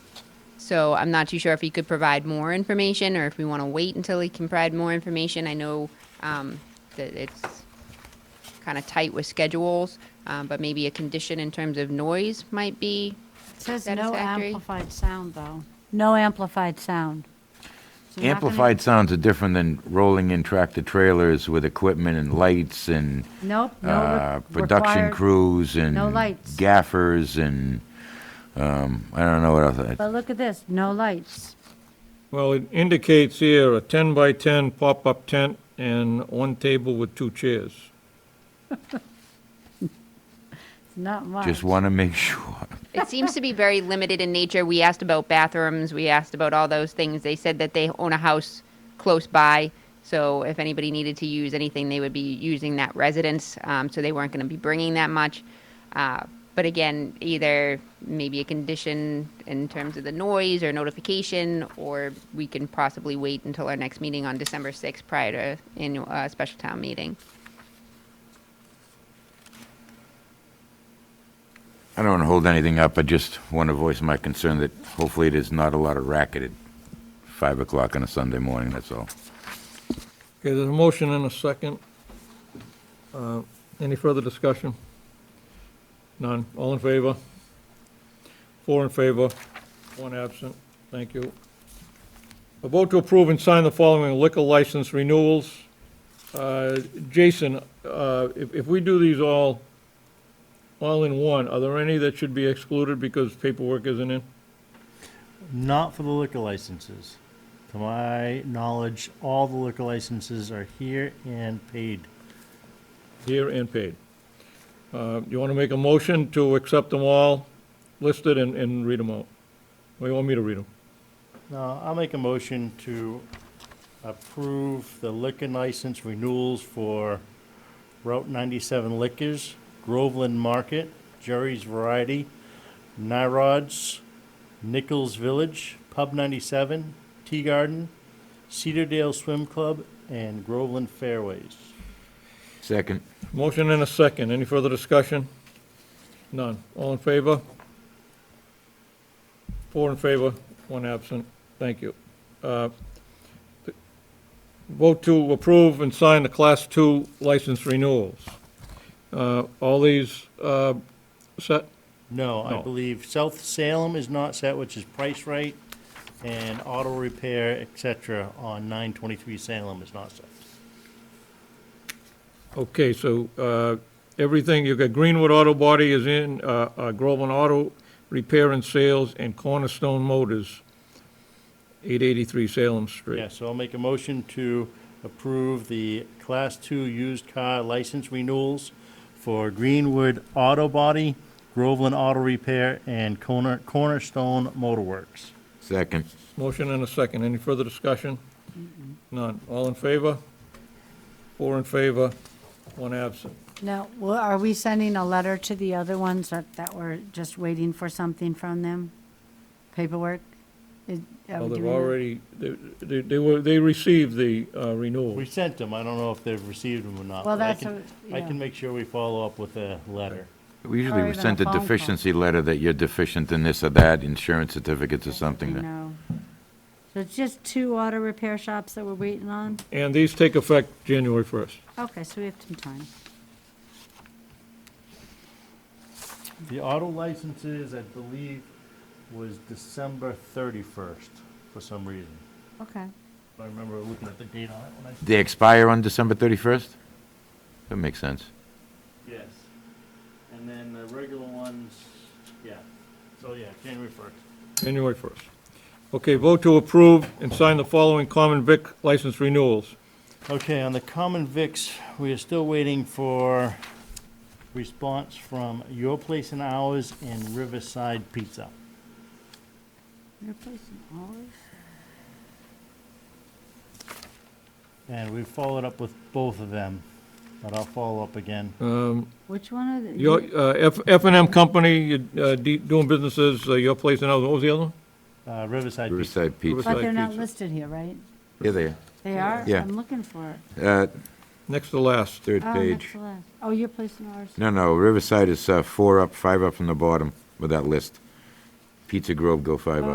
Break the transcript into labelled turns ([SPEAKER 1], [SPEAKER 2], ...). [SPEAKER 1] So I'm not too sure if he could provide more information or if we want to wait until he can provide more information. I know um, that it's kind of tight with schedules, um, but maybe a condition in terms of noise might be
[SPEAKER 2] Says no
[SPEAKER 1] Satisfactory.
[SPEAKER 2] amplified sound, though. No amplified sound. So you're not gonna-
[SPEAKER 3] Amplified sounds are different than rolling in tractor trailers with equipment and lights and
[SPEAKER 2] Nope, no. re-
[SPEAKER 3] uh, production
[SPEAKER 2] required-
[SPEAKER 3] crews and
[SPEAKER 2] no lights.
[SPEAKER 3] gaffers and, um, I don't know what else.
[SPEAKER 2] But look at this, no lights.
[SPEAKER 4] Well, it indicates here a 10 by 10 pop-up tent and one table with two chairs.
[SPEAKER 2] Not much.
[SPEAKER 3] Just want to make sure.
[SPEAKER 1] It seems to be very limited in nature. We asked about bathrooms, we asked about all those things. They said that they own a house close by, so if anybody needed to use anything, they would be using that residence, um, so they weren't going to be bringing that much. Uh, but again, either maybe a condition in terms of the noise or notification, or we can possibly wait until our next meeting on December 6th prior to annual uh, special town meeting.
[SPEAKER 3] I don't want to hold anything up, I just want to voice my concern that hopefully there's not a lot of racket at 5 o'clock on a Sunday morning, that's all.
[SPEAKER 4] Okay, there's a motion and a second. Uh, Any further discussion? None. All in favor? Four in favor, one absent. Thank you. A vote to approve and sign the following liquor license renewals. Uh, Jason, uh, if if we do these all, all in one, are there any that should be excluded because paperwork isn't in?
[SPEAKER 5] Not for the liquor licenses. To my knowledge, all the liquor licenses are here and paid.
[SPEAKER 4] Here and paid. Uh, You want to make a motion to accept them all listed and, and read them out? Or you want me to read them?
[SPEAKER 5] Now, I'll make a motion to approve the liquor license renewals for Route 97 Liquors, Groveland Market, Jerry's Variety, Nyrod's, Nichols Village, Pub 97, Tea Garden, Cedardale Swim Club, and Groveland Fairways.
[SPEAKER 3] Second.
[SPEAKER 4] Motion and a second. Any further discussion? None. All in favor? Four in favor, one absent. Thank you. Uh, Vote to approve and sign the Class Two license renewals. Uh, All these uh, set?
[SPEAKER 5] No, I
[SPEAKER 4] No.
[SPEAKER 5] believe South Salem is not set, which is Price Right, and Auto Repair, et cetera, on 923 Salem is not set.
[SPEAKER 4] Okay, so uh, everything, you've got Greenwood Auto Body is in, uh, uh, Groveland Auto Repair and Sales, and Cornerstone Motors, 883 Salem Street.
[SPEAKER 5] Yeah, so I'll make a motion to approve the Class Two used car license renewals for Greenwood Auto Body, Groveland Auto Repair, and Corner Cornerstone Motorworks.
[SPEAKER 3] Second.
[SPEAKER 4] Motion and a second. Any further discussion? None. All in favor? Four in favor, one absent.
[SPEAKER 2] Now, well, are we sending a letter to the other ones that, that we're just waiting for something from them? Paperwork? Is- are
[SPEAKER 4] Well,
[SPEAKER 2] we
[SPEAKER 4] they've
[SPEAKER 2] doing that?
[SPEAKER 4] already, they- they they were, they received the uh, renewal.
[SPEAKER 5] We sent them, I don't know if they've received them or not.
[SPEAKER 2] Well,
[SPEAKER 5] but I
[SPEAKER 2] that's
[SPEAKER 5] can-
[SPEAKER 2] a-
[SPEAKER 5] I
[SPEAKER 2] yeah.
[SPEAKER 5] can make sure we follow up with a letter.
[SPEAKER 3] We
[SPEAKER 2] Or
[SPEAKER 3] usually
[SPEAKER 2] even a
[SPEAKER 3] send a
[SPEAKER 2] phone call.
[SPEAKER 3] deficiency letter that you're deficient in this or that, insurance certificates or
[SPEAKER 2] I
[SPEAKER 3] something. that-
[SPEAKER 2] know. So it's just two auto repair shops that we're waiting on?
[SPEAKER 4] And these take effect January 1st.
[SPEAKER 2] Okay, so we have some time.
[SPEAKER 5] The auto licenses, I believe, was December 31st for some reason.
[SPEAKER 2] Okay.
[SPEAKER 5] I remember looking at the date on it when I.
[SPEAKER 3] They expire on December 31st? That makes sense.
[SPEAKER 5] Yes. And then the regular ones, yeah. So, yeah, January 1st.
[SPEAKER 4] January 1st. Okay, vote to approve and sign the following common vic license renewals.
[SPEAKER 5] Okay, on the common VIX, we are still waiting for response from Your Place and Ours and Riverside Pizza.
[SPEAKER 2] Replacing ours?
[SPEAKER 5] And we followed up with both of them, but I'll follow up again.
[SPEAKER 2] Which one are the?
[SPEAKER 4] Um, Your, uh, F, F and M Company, uh, D- doing businesses, uh, your place and others, what was the other one?
[SPEAKER 5] Uh, Riverside Pizza.
[SPEAKER 3] Riverside Pizza.
[SPEAKER 4] Riverside.
[SPEAKER 2] But they're not
[SPEAKER 4] Pizza.
[SPEAKER 2] listed here, right?
[SPEAKER 3] Yeah, they are.
[SPEAKER 2] They are?
[SPEAKER 3] Yeah.
[SPEAKER 2] I'm looking for it.
[SPEAKER 3] Uh,
[SPEAKER 4] Next to last.
[SPEAKER 3] Third
[SPEAKER 2] Oh, that's
[SPEAKER 3] page.
[SPEAKER 2] the last. Oh, you're placing ours.
[SPEAKER 3] No, no, Riverside is uh, four up, five up from the bottom with that list. Pizza Grove, go five up.